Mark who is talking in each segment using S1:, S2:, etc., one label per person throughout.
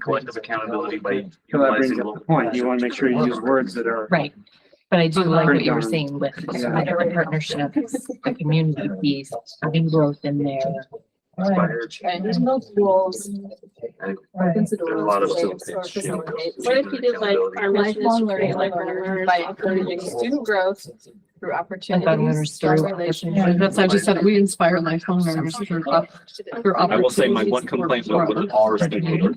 S1: collective accountability by
S2: So that brings
S1: utilizing
S2: up the
S1: local.
S2: point. You want to make sure you use words that are.
S3: Right, but I do like what you were
S2: Breakdown.
S3: saying with
S2: Yeah.
S3: better partnerships, the community piece, having growth in there.
S1: Inspired.
S4: And there's no tools.
S1: And
S4: There's
S1: There's a lot of facilitation.
S5: What if you did like our mission is
S4: Lifelong
S5: to
S4: learning
S5: create life
S4: learners
S5: learners?
S4: by encouraging student growth through
S3: I thought we were
S4: opportunities,
S3: story.
S4: strong
S3: Like,
S4: relationships.
S3: That's, what I just said, we inspire lifelong learners through up, through
S1: I will say my one
S3: opportunities
S1: complaint
S3: for
S1: was with our stakeholder.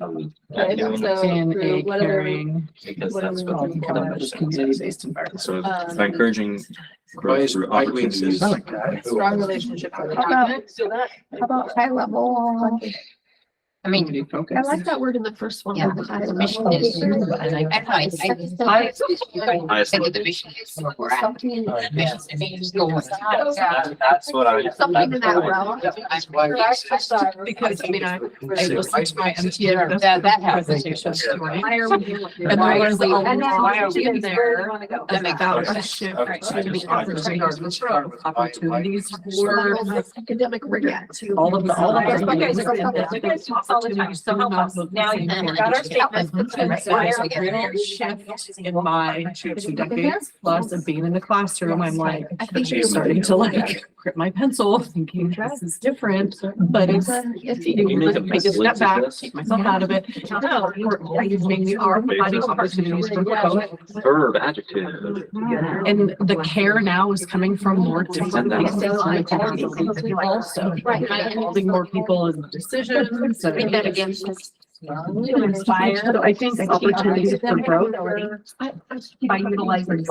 S4: Right, so
S3: In
S4: through
S3: a
S4: whatever we-
S3: caring.
S1: Because
S4: What are
S1: that's
S4: we
S1: what
S4: looking
S1: the
S4: for?
S1: commission. So
S4: Um,
S1: by encouraging growth through opportunities.
S2: I like that.
S4: Strong relationships. are the
S5: How
S4: backbone.
S5: about, so that,
S6: How about high level?
S3: I mean,
S6: I
S3: focus.
S6: like that word in the first one.
S3: Yeah,
S6: the high
S3: the mission
S6: level.
S3: is, and I-
S6: I like second step.
S3: I-
S1: Highest
S3: Think
S1: level.
S3: of the mission is where we're at.
S6: Something
S3: Missions, I mean, just go with that.
S7: That- That's what I.
S6: something in that realm.
S7: That's why we-
S3: Because, I mean, I, I
S7: Six.
S3: listened to my MTN, that, that happens. this morning.
S4: Why are we doing
S3: And I
S4: why are
S3: learned
S4: we-
S3: a
S4: and then
S3: lot. Why are we
S4: where do
S3: there?
S4: you wanna go?
S3: And I got
S7: Okay.
S3: a shift
S7: Okay.
S3: to be
S7: I just- I
S3: opportunities
S7: just-
S3: for opportunities for
S6: Academic rigor too.
S3: all of the, all of
S6: Yes,
S3: the.
S6: you guys are-
S4: you guys talk all the time, so help us. Now you've got our statements,
S3: Mm-hmm.
S4: but then why are we getting our
S3: Shift in my two decades plus of being in the classroom, I'm like,
S6: I think
S3: I'm
S6: you're
S3: starting to like grip my pencil, thinking this is different, but it's.
S1: You need to
S3: I just
S1: link
S3: step
S1: to
S3: back,
S1: this.
S3: take myself out of it. No, you've made me are providing opportunities for growth.
S1: Verb, adjective.
S3: And the care now is coming from more different places. and it's helping people Also,
S6: Right.
S3: holding more people in decisions.
S6: I mean,
S3: and-
S6: that again, is just-
S3: So I think opportunities for growth by utilizing.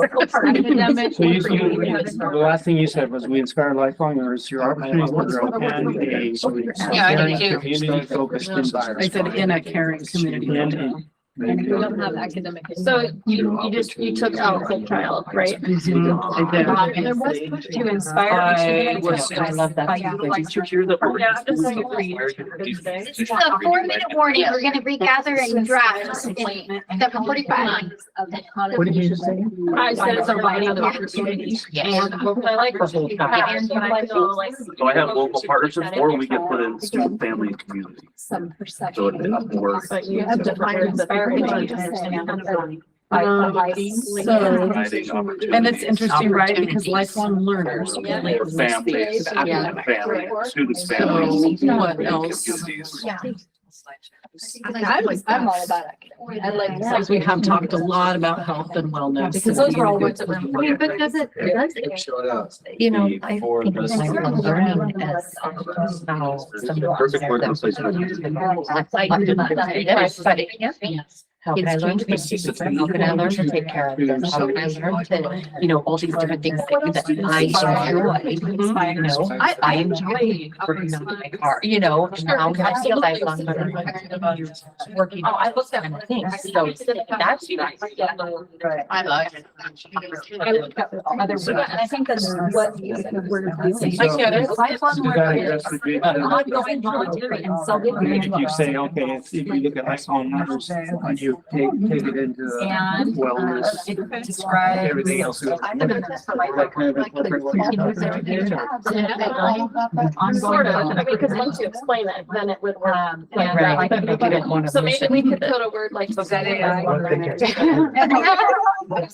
S4: Academic.
S2: So you, you, you- the last thing you said was we inspire lifelong learners through opportunities for growth and a.
S3: Yeah, I did
S6: too.
S2: Community focused
S3: I
S2: environment.
S3: said in a caring community.
S2: In
S4: academic.
S6: So you, you just, you took out whole child, right?
S3: Mhm, I did.
S6: There was push
S4: To
S6: to
S4: inspire.
S3: I
S4: students
S3: was,
S4: to
S3: I love that.
S4: by
S3: too.
S4: utilizing-
S1: Did you hear the word?
S4: Yeah, I'm just like-
S6: This is a four minute warning. We're gonna read gather and draft in seven forty-five.
S2: What did you just say?
S6: I said it's a writing of
S4: opportunities.
S3: Yeah.
S4: I like.
S3: The whole time.
S4: And when I feel like
S1: So I have local partnerships or we can put in student, family and community.
S4: some
S1: So it'd be
S4: perception.
S1: up more.
S6: But you have to find
S4: Inspire
S6: the. people
S4: what
S6: to
S4: you just
S6: understand.
S4: said.
S3: Um,
S4: By-
S3: so-
S1: Providing opportunities.
S3: And it's interesting, right? Because lifelong learners.
S1: For
S3: relate to
S1: families,
S3: the academic.
S1: student family, students,
S3: So,
S1: families.
S3: what
S1: and
S3: else?
S1: communities.
S6: Yeah.
S4: I'm, I'm all about it. I like.
S3: Because we have talked a lot about health and wellness.
S4: Because those were all words that were.
S6: I mean, but does it, does it,
S7: Showed up.
S6: you know, I
S7: Before
S3: Because
S7: this-
S3: I will learn as how some of us
S1: Perfect
S3: are
S1: word
S3: that- That's like,
S6: Like,
S3: but it can't be. How can I
S6: It's
S3: learn
S6: changed
S3: to be
S6: my
S3: safe?
S7: perception.
S3: How can I learn to take care of them? How can I learn to, you know, all these different things that that I enjoy, you know?
S4: I,
S3: I enjoy working on my car, you know, and now I see a lifelong learner. Working.
S4: Oh, I
S3: looked at things, so that's nice. I love it.
S4: I looked up other words. And I think that's what the word of
S3: Like,
S4: doing.
S3: yeah, there's lifelong
S2: You gotta
S3: learning.
S2: address the big-
S3: Ongoing volunteering and
S2: I mean,
S3: self-learning.
S2: if you say, okay, if if you look at lifelong learners, you take, take it into the
S4: And,
S2: wellness,
S4: Describe.
S2: everything else. goes.
S4: I'm gonna just like-
S2: Like, kind of a corporate work.
S6: sort of, I mean, because once you explain it, then it would work.
S3: Um, like, right, but I didn't want to.
S6: So maybe we could
S3: mention that.
S6: put a word like.
S4: Was that AI?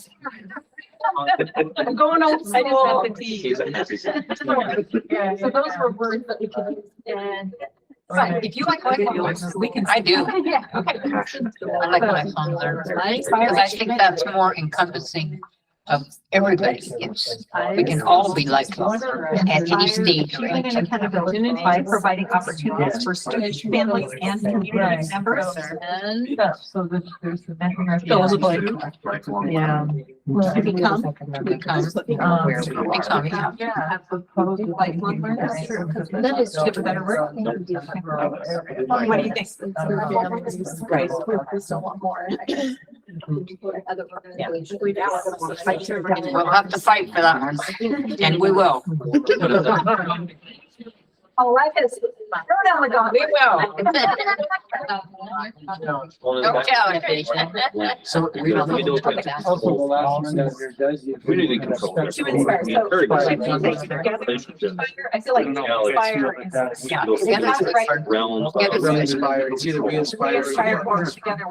S6: I'm going old
S4: I just have
S6: school.
S4: the tea.
S1: He's a happy.
S6: So those were words that we could use in.
S4: Right, if you like lifelong, we can.
S3: I do.
S6: Yeah.
S1: Passion.
S3: I like lifelong learners.
S4: I
S3: Because I think that's more encompassing of everybody. It's, we can all be lifelong at any stage. of
S4: Achieving
S3: life.
S4: and accountability by providing opportunities for students, families, and community members. And. So that there's the
S3: Fill the blank.
S1: Lifelong.
S3: Yeah.
S4: To become.
S3: To become.
S4: um,
S3: Where we become, yeah.
S4: As opposed to lifelong learners.
S3: That's
S4: That is just a better word. What do you think?
S3: Right. We'll have to fight for that one, and we will.
S4: Oh, life is. Throw down the
S6: uh,
S4: gauntlet.
S3: Don't tell anybody.
S2: So
S3: We don't
S1: We
S3: know
S1: don't
S3: what to talk about.
S2: Also, the last one that here does. you-
S1: We need to control this.
S4: To inspire, so.
S1: Very good.
S4: should we say together, inspire? I feel like inspire is, yeah.
S1: Together
S3: it's-
S4: Right.
S1: Realms.
S3: Together
S1: of-
S3: it's-
S2: Inspire, it's either we inspire. or-
S4: Inspire works together